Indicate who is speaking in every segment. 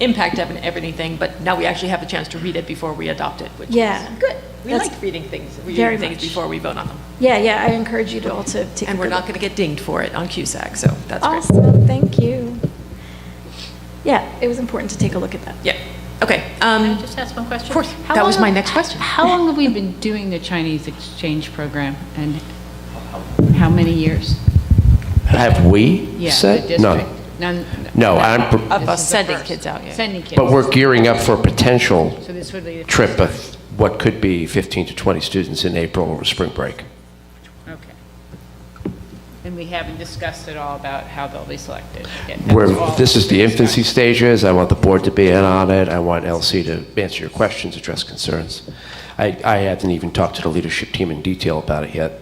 Speaker 1: impact of and everything, but now we actually have a chance to read it before we adopt it, which is
Speaker 2: Yeah.
Speaker 1: good. We
Speaker 2: That's
Speaker 1: like reading things,
Speaker 2: very
Speaker 1: reading things
Speaker 2: much.
Speaker 1: before we vote on them.
Speaker 2: Yeah, yeah, I encourage you to also take.
Speaker 1: And
Speaker 2: a
Speaker 1: we're
Speaker 2: good
Speaker 1: not
Speaker 2: look.
Speaker 1: going to get dinged for it on CUSAC, so that's great.
Speaker 2: Awesome, thank you. Yeah, it was important to take a look at that.
Speaker 1: Yeah, okay. um,
Speaker 3: Can I just ask one question?
Speaker 1: Of course.
Speaker 3: How
Speaker 1: That was
Speaker 3: long
Speaker 1: my
Speaker 3: have-
Speaker 1: next question.
Speaker 3: How long have we been doing the Chinese exchange program, and how many years?
Speaker 4: Have we
Speaker 3: Yeah, the
Speaker 4: said?
Speaker 3: district.
Speaker 4: No.
Speaker 3: None-
Speaker 4: No,
Speaker 3: none-
Speaker 4: I'm pr-
Speaker 3: this
Speaker 1: Of us
Speaker 3: is the
Speaker 1: sending
Speaker 3: first.
Speaker 1: kids out, yeah.
Speaker 3: Sending kids.
Speaker 4: But we're gearing up for a potential
Speaker 3: So this would be the
Speaker 4: trip
Speaker 3: first
Speaker 4: of what could be 15 to 20 students in April or spring break.
Speaker 3: time. Okay. And we haven't discussed at all about how they'll be selected. yet.
Speaker 4: Where,
Speaker 3: That's all
Speaker 4: this is the
Speaker 3: been
Speaker 4: infancy
Speaker 3: discussed.
Speaker 4: stages, I want the board to be in on it, I want LC to answer your questions, address concerns. I, I haven't even talked to the leadership team in detail about it yet.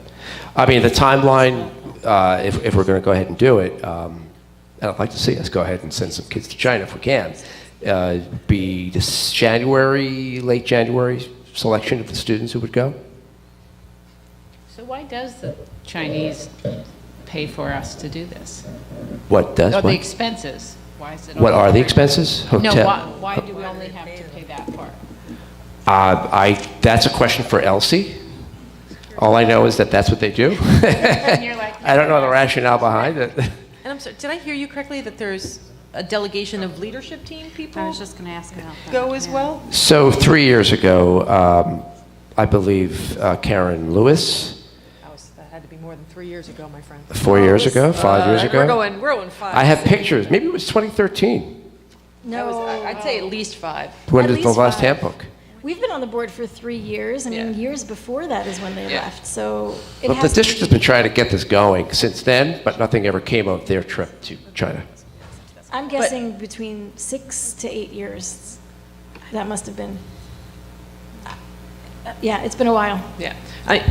Speaker 4: I mean, the timeline, uh, if, if we're going to go ahead and do it, um, and I'd like to see us go ahead and send some kids to China if we can, uh, be this January, late January selection of the students who would go?
Speaker 3: So why does the Chinese pay for us to do this?
Speaker 4: What does,
Speaker 3: Or the
Speaker 4: what,
Speaker 3: expenses? Why is it?
Speaker 4: what
Speaker 3: all-
Speaker 4: are the expenses?
Speaker 3: No,
Speaker 4: Hotel-
Speaker 3: why, why do we only have to pay that part?
Speaker 4: Uh, I, that's a question for Elsie. All I know is that that's what they do.
Speaker 3: you're like,
Speaker 4: I don't know the rationale behind it.
Speaker 1: And I'm sorry, did I hear you correctly that there's a delegation of leadership team
Speaker 5: I
Speaker 1: people
Speaker 5: was just going to ask about that.
Speaker 1: go as
Speaker 5: yeah.
Speaker 1: well?
Speaker 4: So three years ago, um, I believe uh, Karen Lewis,
Speaker 1: That was- That had to be more than three years ago, my friend.
Speaker 4: four years ago, five years
Speaker 1: Uh, We're
Speaker 4: ago.
Speaker 1: going, we're going five.
Speaker 4: I have pictures, maybe it was 2013,
Speaker 1: That was- I-
Speaker 2: No,
Speaker 1: I'd say at least five.
Speaker 4: when
Speaker 2: At
Speaker 4: did the
Speaker 2: least
Speaker 4: last
Speaker 2: five.
Speaker 4: handbook?
Speaker 2: we've been on the board for three years. I mean,
Speaker 1: Yeah.
Speaker 2: years before that is when they
Speaker 1: Yeah.
Speaker 2: left, so it
Speaker 4: But the
Speaker 2: has.
Speaker 4: district has been trying to get this going since then, but nothing ever came of their trip to China.
Speaker 2: I'm guessing between six to eight years. That must have been. uh, Yeah, it's been a while.
Speaker 1: Yeah. I-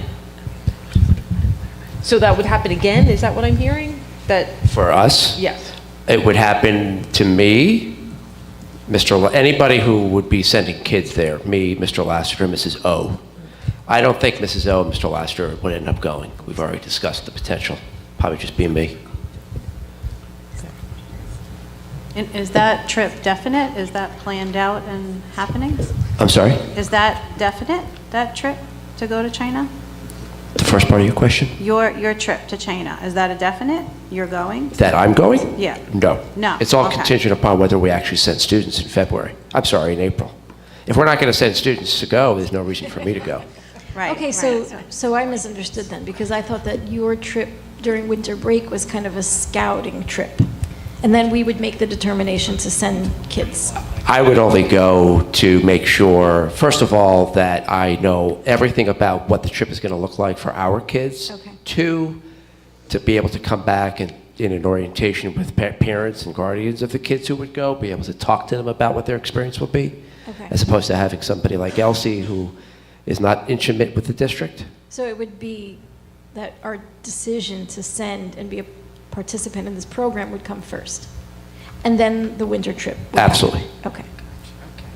Speaker 1: So that would happen again, is that what I'm hearing? That,
Speaker 4: For us?
Speaker 1: yes.
Speaker 4: It would happen to me, Mr., La- anybody who would be sending kids there, me, Mr. Lassiter, Mrs. O. I don't think Mrs. O and Mr. Lassiter would end up going. We've already discussed the potential, probably just be me.
Speaker 5: And is that trip definite? Is that planned out and happening?
Speaker 4: I'm sorry,
Speaker 5: Is that definite, that trip to go to China?
Speaker 4: the first part of your question?
Speaker 5: Your, your trip to China, is that a definite? You're going?
Speaker 4: That I'm going?
Speaker 5: Yeah.
Speaker 4: No.
Speaker 5: No,
Speaker 4: It's all
Speaker 5: okay.
Speaker 4: contingent upon whether we actually send students in February. I'm sorry, in April. If we're not going to send students to go, there's no reason for me to go.
Speaker 5: Right.
Speaker 2: Okay,
Speaker 5: right.
Speaker 2: so, so I misunderstood then, because I thought that your trip during winter break was kind of a scouting trip. And then we would make the determination to send kids.
Speaker 4: I would only go to make sure, first of all, that I know everything about what the trip is going to look like for our kids.
Speaker 5: Okay.
Speaker 4: Two, to be able to come back and in an orientation with pa- parents and guardians of the kids who would go, be able to talk to them about what their experience will be,
Speaker 2: Okay.
Speaker 4: as opposed to having somebody like Elsie who is not intimate with the district.
Speaker 2: So it would be that our decision to send and be a participant in this program would come first. And then the winter trip. would happen.
Speaker 4: Absolutely.
Speaker 2: Okay.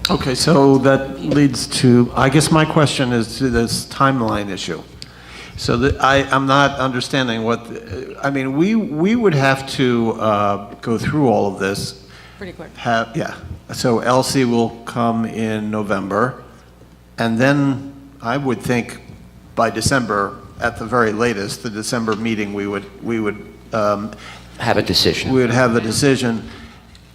Speaker 6: Okay, so that leads to, I guess my question is to this timeline issue. So that, I, I'm not understanding what, I mean, we, we would have to uh, go through all of this.
Speaker 1: Pretty quick.
Speaker 6: Have, yeah, so Elsie will come in November, and then I would think by December, at the very latest, the December meeting, we would, we would um,
Speaker 4: Have a decision.
Speaker 6: we would have the decision.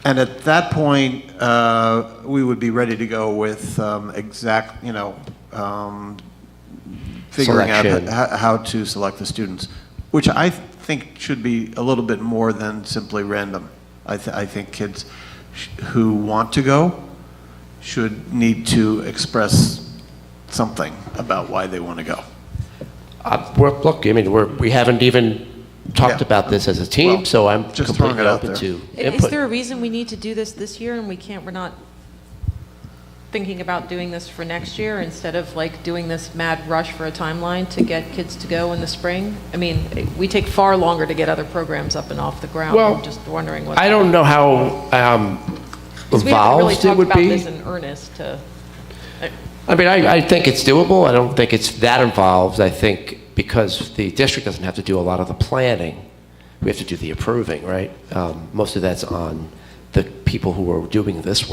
Speaker 6: And at that point, uh, we would be ready to go with um, exact, you know, um, figuring out
Speaker 4: Selection.
Speaker 6: ho- how to select the students, which I think should be a little bit more than simply random. I th- I think kids sh- who want to go should need to express something about why they want to go.
Speaker 4: Uh, we're, look, I mean, we're, we haven't even talked
Speaker 6: Yeah.
Speaker 4: about this as a team,
Speaker 6: Well,
Speaker 4: so I'm
Speaker 6: just throwing
Speaker 4: completely
Speaker 6: it out
Speaker 4: open
Speaker 6: there.
Speaker 4: to
Speaker 1: I- Is
Speaker 4: input.
Speaker 1: there a reason we need to do this this year and we can't, we're not thinking about doing this for next year instead of like doing this mad rush for a timeline to get kids to go in the spring? I mean, eh, we take far longer to get other programs up and off the ground.
Speaker 4: Well,
Speaker 1: I'm just wondering what.
Speaker 4: I don't know how um,
Speaker 1: 'cause we haven't really
Speaker 4: involved it
Speaker 1: talked
Speaker 4: would
Speaker 1: about
Speaker 4: be.
Speaker 1: this in earnest to.
Speaker 4: I mean, I, I think it's doable. I don't think it's that involved. I think because the district doesn't have to do a lot of the planning, we have to do the approving, right? Um, Most of that's on the people who are doing this